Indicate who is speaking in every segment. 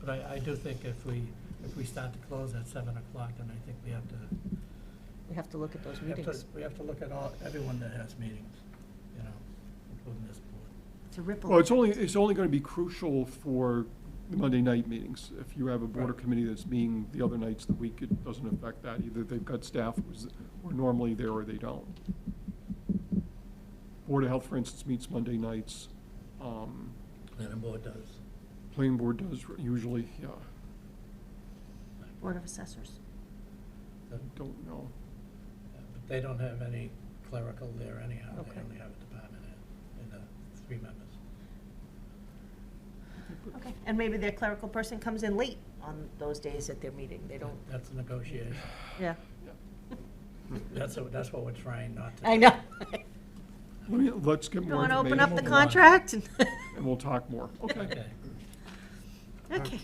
Speaker 1: But I, I do think if we, if we start to close at seven o'clock, then I think we have to,
Speaker 2: We have to look at those
Speaker 1: we have to,
Speaker 2: meetings.
Speaker 1: we have to look at all, everyone that has meetings, you know, including this board.
Speaker 2: It's a ripple.
Speaker 3: Well, it's only, it's only going to be crucial for the Monday night meetings. If you have a board or
Speaker 1: Right.
Speaker 3: committee that's meeting the other nights of the week, it doesn't affect that. Either they've got staff who's, who are normally there or they don't. Board of Health, for instance, meets Monday nights. Um,
Speaker 1: Planning board does.
Speaker 3: Planning board does usually, yeah,
Speaker 2: Board of Assessors.
Speaker 3: I don't know.
Speaker 1: But they don't have any clerical there anyhow. They
Speaker 2: Okay.
Speaker 1: only have a department head and, uh, three members.
Speaker 2: Okay, and maybe their clerical person comes in late on those days at their meeting. They don't,
Speaker 1: That's a negotiation.
Speaker 2: yeah.
Speaker 1: That's, what- that's what we're trying not to.
Speaker 2: I
Speaker 1: do.
Speaker 2: know.
Speaker 3: Let me, let's get
Speaker 2: You
Speaker 3: more
Speaker 2: want to open
Speaker 3: information.
Speaker 2: up the
Speaker 1: Move along.
Speaker 2: contract?
Speaker 3: And we'll talk more. Okay.
Speaker 1: Okay.
Speaker 2: Okay.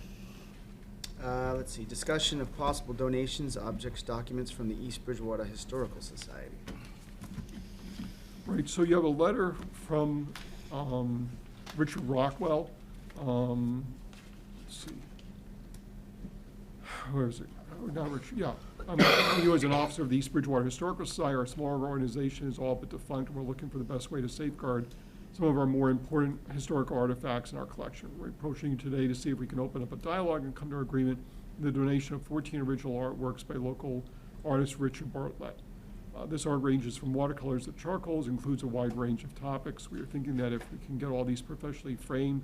Speaker 4: Uh, let's see, discussion of possible donations, objects, documents from the East Bridgewater Historical Society.
Speaker 3: Right, so you have a letter from um, Richard Rockwell. um, Let's see. Where is it? Oh, Not Richard, yeah. Um, You as an officer of the East Bridgewater Historical Society, our smaller organization is all but defunct, and we're looking for the best way to safeguard some of our more important historical artifacts in our collection. We're approaching you today to see if we can open up a dialogue and come to an agreement in the donation of 14 original artworks by local artist Richard Bartlett. Uh, This art ranges from watercolors to charcoals, includes a wide range of topics. We are thinking that if we can get all these professionally framed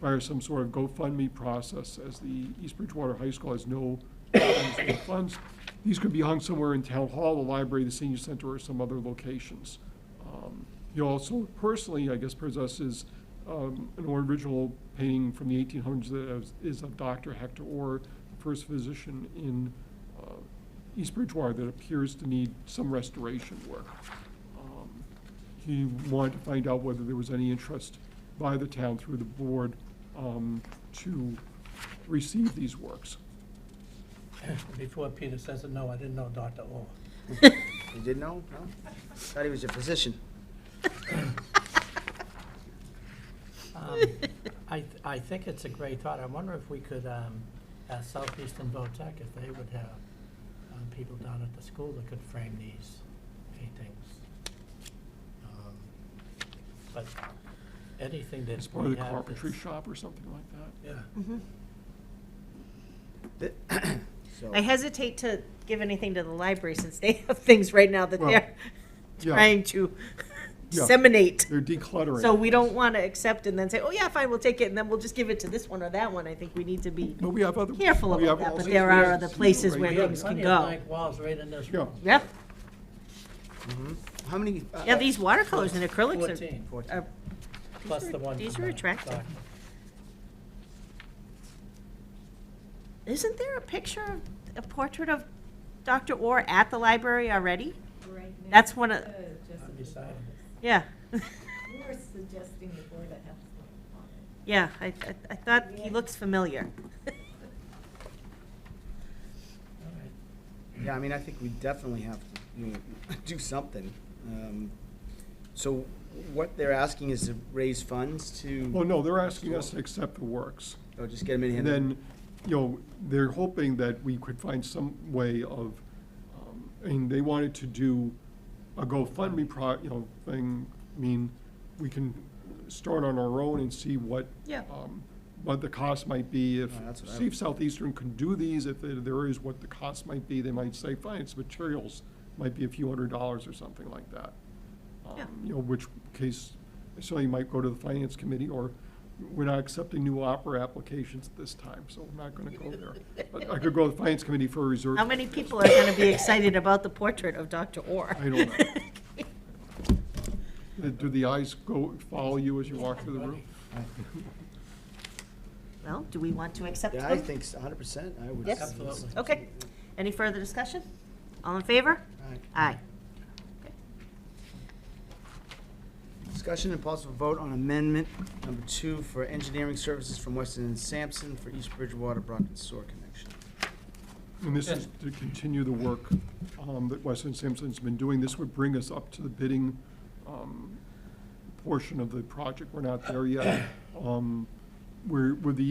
Speaker 3: via some sort of GoFundMe process, as the East Bridgewater High School has no funds for the funds, these could be hung somewhere in Town Hall, the library, the senior center, or some other locations. Um, He also personally, I guess, possesses um, an original painting from the 1800s that is- is of Dr. Hector Orr, the first physician in uh, East Bridgewater that appears to need some restoration work. Um, He wanted to find out whether there was any interest by the town through the board um, to receive these works.
Speaker 1: Before Peter says it, no, I didn't know Dr. Orr.
Speaker 4: You didn't know? No? Thought he was your physician.
Speaker 1: Um, I, th- I think it's a great thought. I wonder if we could um, ask Southeastern Votek if they would have um, people down at the school that could frame these paintings. Um, But anything that
Speaker 3: It's part of
Speaker 1: we
Speaker 3: the
Speaker 1: have
Speaker 3: carpentry
Speaker 1: that's,
Speaker 3: shop or something like that.
Speaker 1: yeah,
Speaker 4: Th- So,
Speaker 2: I hesitate to give anything to the library since they have things right now that
Speaker 3: Well,
Speaker 2: they're
Speaker 3: yeah.
Speaker 2: trying to
Speaker 3: Yeah.
Speaker 2: disseminate.
Speaker 3: They're decluttering.
Speaker 2: So we don't want to accept and then say, oh, yeah, fine, we'll take it, and then we'll just give it to this one or that one. I think we need to be,
Speaker 3: But we have other.
Speaker 2: Careful
Speaker 3: we
Speaker 2: about
Speaker 3: have
Speaker 2: that,
Speaker 3: all
Speaker 2: but
Speaker 3: these
Speaker 2: there are
Speaker 3: ways
Speaker 2: other
Speaker 3: to
Speaker 2: places
Speaker 3: do it
Speaker 2: where
Speaker 3: right
Speaker 1: we
Speaker 3: here.
Speaker 1: have
Speaker 2: things can
Speaker 1: plenty of
Speaker 2: go.
Speaker 1: blank walls right in this
Speaker 3: Yeah.
Speaker 1: room.
Speaker 2: yeah,
Speaker 4: how many? uh,
Speaker 2: yeah, these watercolors and acrylics are.
Speaker 1: Fourteen,
Speaker 4: Fourteen.
Speaker 2: are- these
Speaker 1: plus
Speaker 2: are-
Speaker 1: the one.
Speaker 2: These
Speaker 1: from
Speaker 2: are
Speaker 1: the
Speaker 2: attractive.
Speaker 1: document.
Speaker 2: Isn't there a picture, of a portrait of Dr. Orr at the library already?
Speaker 5: Right now. Uh,
Speaker 2: That's one of-
Speaker 1: I'm beside him.
Speaker 2: Yeah,
Speaker 5: We were suggesting the Board of Health went on it.
Speaker 2: yeah, I, I- I thought he looks familiar.
Speaker 1: All right.
Speaker 4: Yeah, I mean, I think we definitely have to, you know, do something. Um, So what they're asking is to raise funds to?
Speaker 3: Well, Oh, no, they're asking us to accept the works.
Speaker 4: Or just get them in hand?
Speaker 3: And then, you know, they're hoping that we could find some way of, um, I mean, they wanted to do a GoFundMe pro, you know, thing. I mean, we can start on our own and see what.
Speaker 2: Yeah.
Speaker 3: um, What the cost might be if,
Speaker 4: Oh, that's what I-
Speaker 3: see if Southeastern can do these, if there- there is what the cost might be, they might say, fine, it's materials, might be a few hundred dollars or something like that.
Speaker 2: Yeah.
Speaker 3: Um, You know, which case, so you might go to the finance committee, or we're not accepting new opera applications at this time, so I'm not gonna go there. But I could go to the finance committee for a reserve.
Speaker 2: How many people are gonna be excited about the portrait of Dr. Orr?
Speaker 3: I don't Uh, Do the eyes go, follow you as you walk through the room?
Speaker 2: Well, do we want to accept
Speaker 4: Yeah, I
Speaker 2: them?
Speaker 4: think hundred percent, I would.
Speaker 2: Yes.
Speaker 1: Absolutely.
Speaker 2: Okay, any further discussion? All in favor?
Speaker 4: All right.
Speaker 2: Aye.
Speaker 4: Discussion and possible vote on amendment number two for engineering services from Weston and Sampson for East Bridgewater Brockton Sewer connection.
Speaker 3: And this is to continue the work um, that Weston Sampson's been doing. This would bring us up to the bidding um, portion of the project. We're not there yet. Um, We're, with the